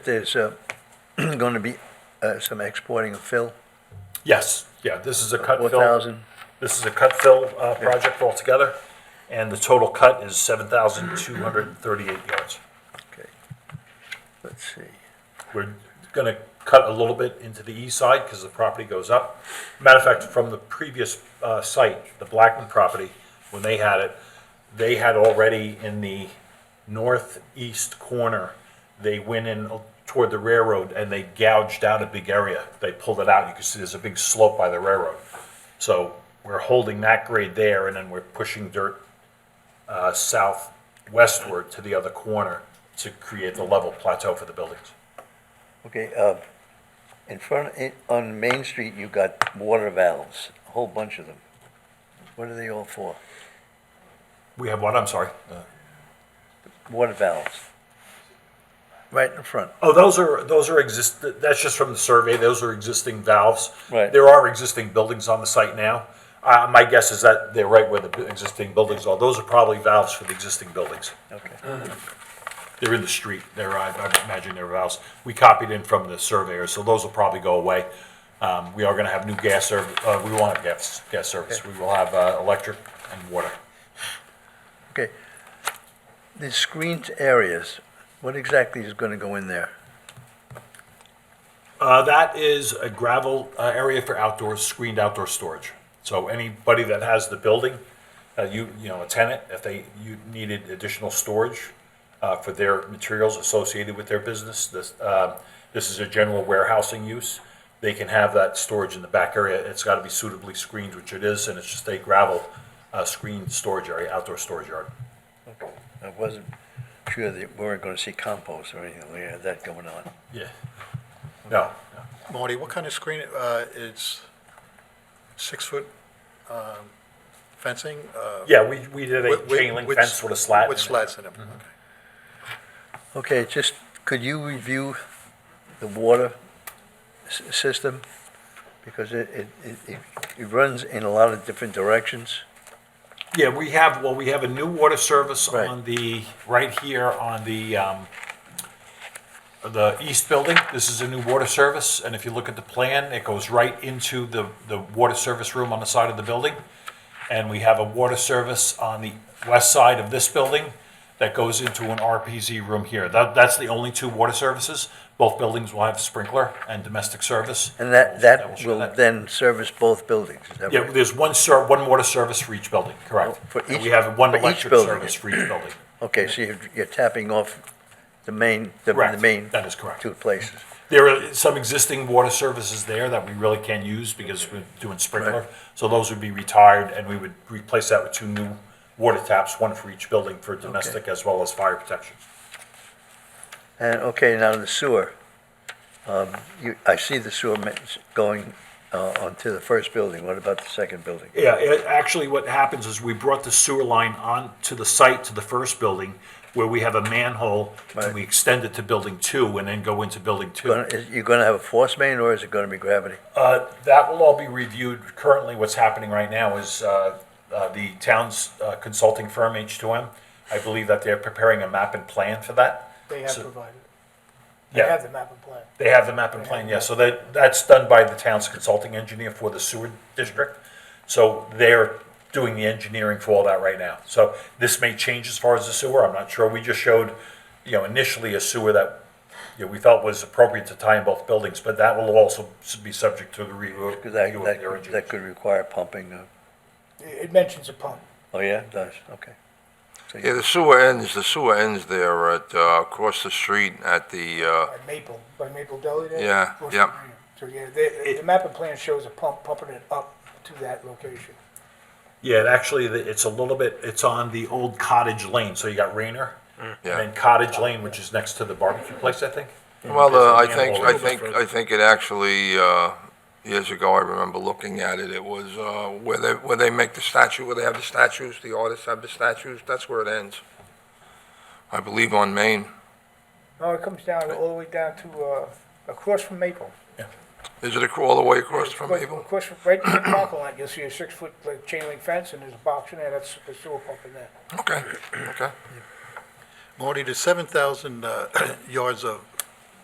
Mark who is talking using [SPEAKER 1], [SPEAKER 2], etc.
[SPEAKER 1] There's going to be uh, some exporting of fill,
[SPEAKER 2] Yes, yeah, this is a cut fill.
[SPEAKER 1] 4,000.
[SPEAKER 2] This is a cut fill uh, project altogether, and the total cut is 7,238 yards.
[SPEAKER 1] Okay. Let's see.
[SPEAKER 2] We're going to cut a little bit into the east side because the property goes up. Matter of fact, from the previous uh, site, the Blackman property, when they had it, they had already in the northeast corner, they went in toward the railroad and they gouged out a big area. They pulled it out. You can see there's a big slope by the railroad. So we're holding that grade there and then we're pushing dirt uh, southwestward to the other corner to create the level plateau for the buildings.
[SPEAKER 1] Okay, uh, in front, in- on Main Street, you got water valves, a whole bunch of them. What are they all for?
[SPEAKER 2] We have one, I'm sorry.
[SPEAKER 1] Water valves. Right in front.
[SPEAKER 2] Oh, those are, those are exist, that's just from the survey, those are existing valves.
[SPEAKER 1] Right.
[SPEAKER 2] There are existing buildings on the site now. Uh, my guess is that they're right where the bu- existing buildings are. Those are probably valves for the existing buildings. Uh.
[SPEAKER 1] Okay.
[SPEAKER 2] They're in the street, they're, I I imagine they're valves. We copied in from the surveyor, so those will probably go away. Um, we are gonna have new gas service, uh, we want gas, gas service. We will have, uh, electric and water.
[SPEAKER 1] Okay. The screened areas, what exactly is going to go in there?
[SPEAKER 2] Uh, that is a gravel uh, area for outdoor, screened outdoor storage. So anybody that has the building, uh, you, you know, a tenant, if they, you needed additional storage uh, for their materials associated with their business, this, uh, this is a general warehousing use. They can have that storage in the back area. It's got to be suitably screened, which it is, and it's just a gravel uh, screened storage area, outdoor storage yard.
[SPEAKER 1] I wasn't sure that we weren't going to see compost or anything like that going on.
[SPEAKER 2] Yeah. No, no.
[SPEAKER 3] Marty, what kind of screen, uh, it's six-foot um, fencing? uh,
[SPEAKER 2] Yeah, we, we did a
[SPEAKER 3] with- with-
[SPEAKER 2] chain link fence with a slat.
[SPEAKER 3] With
[SPEAKER 2] in it. Mm-hmm.
[SPEAKER 3] slats in them, okay.
[SPEAKER 1] Okay, just, could you review the water s- system? Because it, it, it- it, it runs in a lot of different directions.
[SPEAKER 2] Yeah, we have, well, we have a new water service
[SPEAKER 1] Right.
[SPEAKER 2] on the, right here on the, um, the east building. This is a new water service, and if you look at the plan, it goes right into the, the water service room on the side of the building. And we have a water service on the west side of this building that goes into an RPZ room here. That, that's the only two water services. Both buildings will have sprinkler and domestic service.
[SPEAKER 1] And that, that
[SPEAKER 2] show
[SPEAKER 1] will then service both buildings, is that
[SPEAKER 2] yeah,
[SPEAKER 1] right?
[SPEAKER 2] there's one ser, one water service for each building, correct?
[SPEAKER 1] Oh, for
[SPEAKER 2] And
[SPEAKER 1] each-
[SPEAKER 2] We have one
[SPEAKER 1] for each
[SPEAKER 2] electric
[SPEAKER 1] building.
[SPEAKER 2] service for each building,
[SPEAKER 1] Okay, so you're, you're tapping off the main, the the
[SPEAKER 2] correct?
[SPEAKER 1] main
[SPEAKER 2] That is correct.
[SPEAKER 1] two places.
[SPEAKER 2] There are some existing water services there that we really can't use because we're doing sprinkler.
[SPEAKER 1] Right.
[SPEAKER 2] So those would be retired and we would replace that with two new water taps, one for each building for domestic as well as fire protection.
[SPEAKER 1] And, okay, now the sewer. Um, you, I see the sewer ma- going, uh, onto the first building, what about the second building?
[SPEAKER 2] Yeah, it, actually, what happens is we brought the sewer line on to the site, to the first building, where we have a manhole,
[SPEAKER 1] Right.
[SPEAKER 2] and we extend it to building two, and then go into building two.
[SPEAKER 1] Gonna, is, you gonna have a force main, or is it gonna be gravity?
[SPEAKER 2] Uh, That will all be reviewed. Currently, what's happening right now is uh, uh, the town's uh, consulting firm, H2M, I believe that they're preparing a map and plan for that.
[SPEAKER 4] They have
[SPEAKER 2] So-
[SPEAKER 4] provided, they
[SPEAKER 2] Yeah,
[SPEAKER 4] have the map and plan.
[SPEAKER 2] they have the map and plan, yeah. So that, that's done by the town's consulting engineer for the sewer district. So they're doing the engineering for all that right now. So this may change as far as the sewer, I'm not sure. We just showed, you know, initially a sewer that, you know, we felt was appropriate to tie in both buildings, but that will also be subject to the review.
[SPEAKER 1] Because that,
[SPEAKER 2] review of their
[SPEAKER 1] that,
[SPEAKER 2] engineers.
[SPEAKER 1] that could require pumping, uh,
[SPEAKER 4] It it mentions a pump.
[SPEAKER 1] oh yeah, it does, okay. So
[SPEAKER 5] Yeah,
[SPEAKER 1] you-
[SPEAKER 5] the sewer ends, the sewer ends there at, uh, across the street at the, uh,
[SPEAKER 4] By Maple, by Maple Deli there?
[SPEAKER 5] Yeah,
[SPEAKER 4] Across
[SPEAKER 5] yep.
[SPEAKER 4] the green. So, yeah, the, the map and plan shows a pump pumping it up to that location.
[SPEAKER 2] Yeah, it actually, the- it's a little bit, it's on the old Cottage Lane, so you got Rayner, and
[SPEAKER 5] Yeah.
[SPEAKER 2] then Cottage Lane, which is next to the barbecue place, I think.
[SPEAKER 5] well,
[SPEAKER 2] There's
[SPEAKER 5] uh,
[SPEAKER 2] a
[SPEAKER 5] I think,
[SPEAKER 2] manhole
[SPEAKER 5] I think, I think it actually, uh, years ago, I remember looking at it, it was, uh, where they, where they make the statue, where they have the statues, the artists have the statues, that's where it ends. I believe on Main.
[SPEAKER 4] No, it comes down, all the way down to, uh, across from Maple.
[SPEAKER 5] Is it acro- all the way across from
[SPEAKER 4] Across-
[SPEAKER 5] Maple?
[SPEAKER 4] Across, from- right from the parking lot, you'll see a six-foot like, chain link fence, and there's a box in there, that's the sewer pump in there.
[SPEAKER 5] Okay, okay.
[SPEAKER 3] Marty, the 7,000 uh, yards of